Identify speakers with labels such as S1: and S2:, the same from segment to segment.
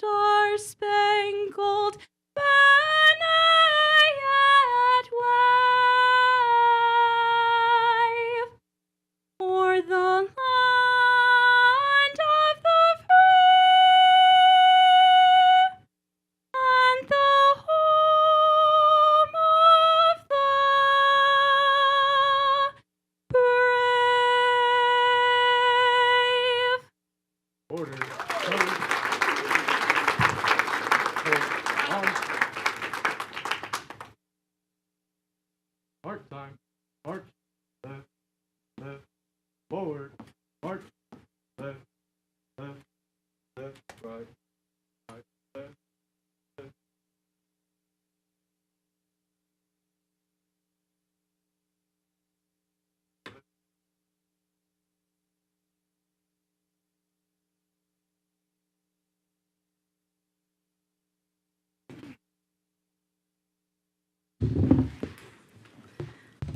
S1: Oh, spangled banner yet wave o'er the land of the free and the home of the brave.
S2: Order. March time, march, left, left, forward, march, left, left, left, right, right, left, left.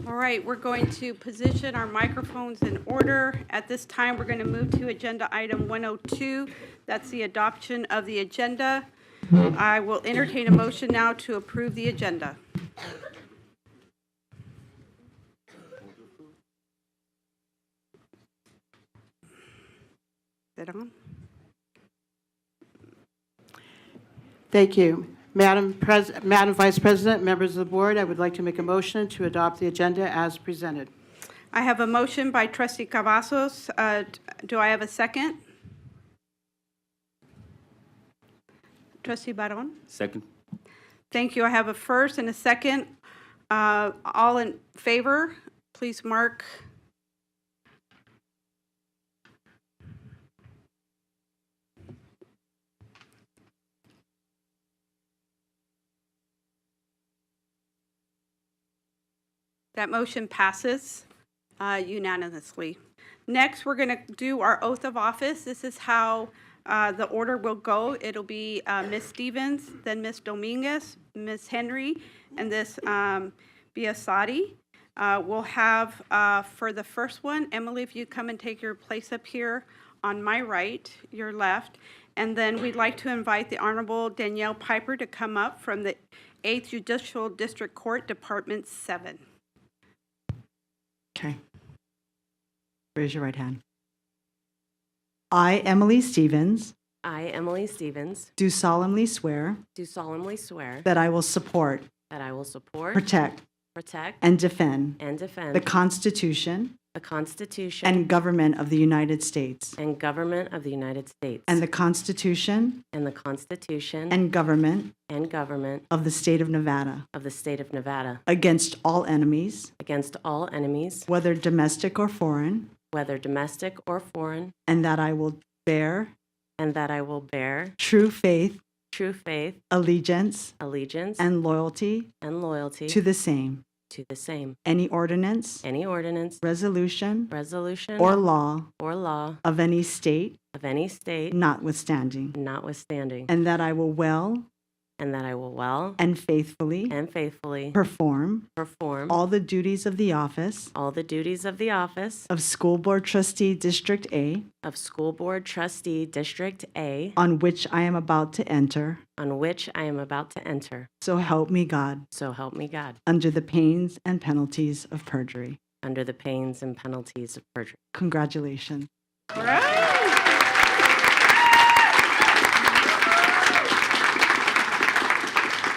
S1: All right, we're going to position our microphones in order. At this time, we're going to move to Agenda Item 102. That's the adoption of the agenda. I will entertain a motion now to approve the agenda. Is it on?
S3: Thank you. Madam Pres, Madam Vice President, members of the board, I would like to make a motion to adopt the agenda as presented.
S1: I have a motion by trustee Cavazos. Uh, Do I have a second? Trustee Barone?
S4: Second.
S1: Thank you. I have a first and a second. Uh, All in favor, please mark. That motion passes uh, unanimously. Next, we're going to do our oath of office. This is how uh, the order will go. It'll be uh, Ms. Stevens, then Ms. Dominguez, Ms. Henry, and this um, Biassadi. Uh, We'll have, uh, for the first one, Emily, if you come and take your place up here on my right, your left. And then we'd like to invite the Honorable Danielle Piper to come up from the 8th Judicial District Court, Department 7.
S5: Okay. Raise your right hand. I, Emily Stevens,
S6: I, Emily Stevens,
S5: do solemnly swear
S6: do solemnly swear
S5: that I will support,
S6: that I will support,
S5: protect,
S6: protect,
S5: and defend
S6: and defend
S5: the Constitution
S6: the Constitution
S5: and government of the United States
S6: and government of the United States
S5: and the Constitution
S6: and the Constitution
S5: and government
S6: and government
S5: of the state of Nevada
S6: of the state of Nevada
S5: against all enemies,
S6: against all enemies,
S5: whether domestic or foreign,
S6: whether domestic or foreign,
S5: and that I will bear
S6: and that I will bear
S5: true faith,
S6: true faith,
S5: allegiance,
S6: allegiance,
S5: and loyalty
S6: and loyalty
S5: to
S6: to
S5: the same,
S6: the same.
S5: any ordinance,
S6: Any ordinance,
S5: resolution,
S6: resolution,
S5: or law
S6: or law
S5: of any state
S6: of any state
S5: notwithstanding,
S6: notwithstanding,
S5: and that I will well
S6: and that I will well
S5: and faithfully
S6: and faithfully
S5: perform
S6: perform
S5: all the duties of the office
S6: all the duties of the office
S5: of School Board Trustee District A
S6: of School Board Trustee District A
S5: on which I am about to enter.
S6: on which I am about to enter.
S5: So help me God,
S6: So help me God,
S5: under the pains and penalties of perjury.
S6: under the pains and penalties of perjury.
S5: Congratulations.
S1: All right.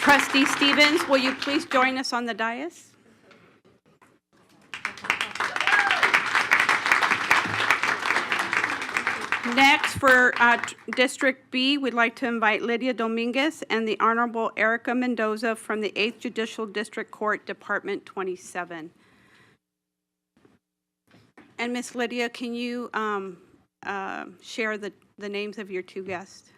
S1: Trustee Stevens, will you please join us on the dais? Next, for uh, t- District B, we'd like to invite Lydia Dominguez and the Honorable Erica Mendoza from the 8th Judicial District Court, Department 27. And Miss Lydia, can you um, um, share the the names of your two guests?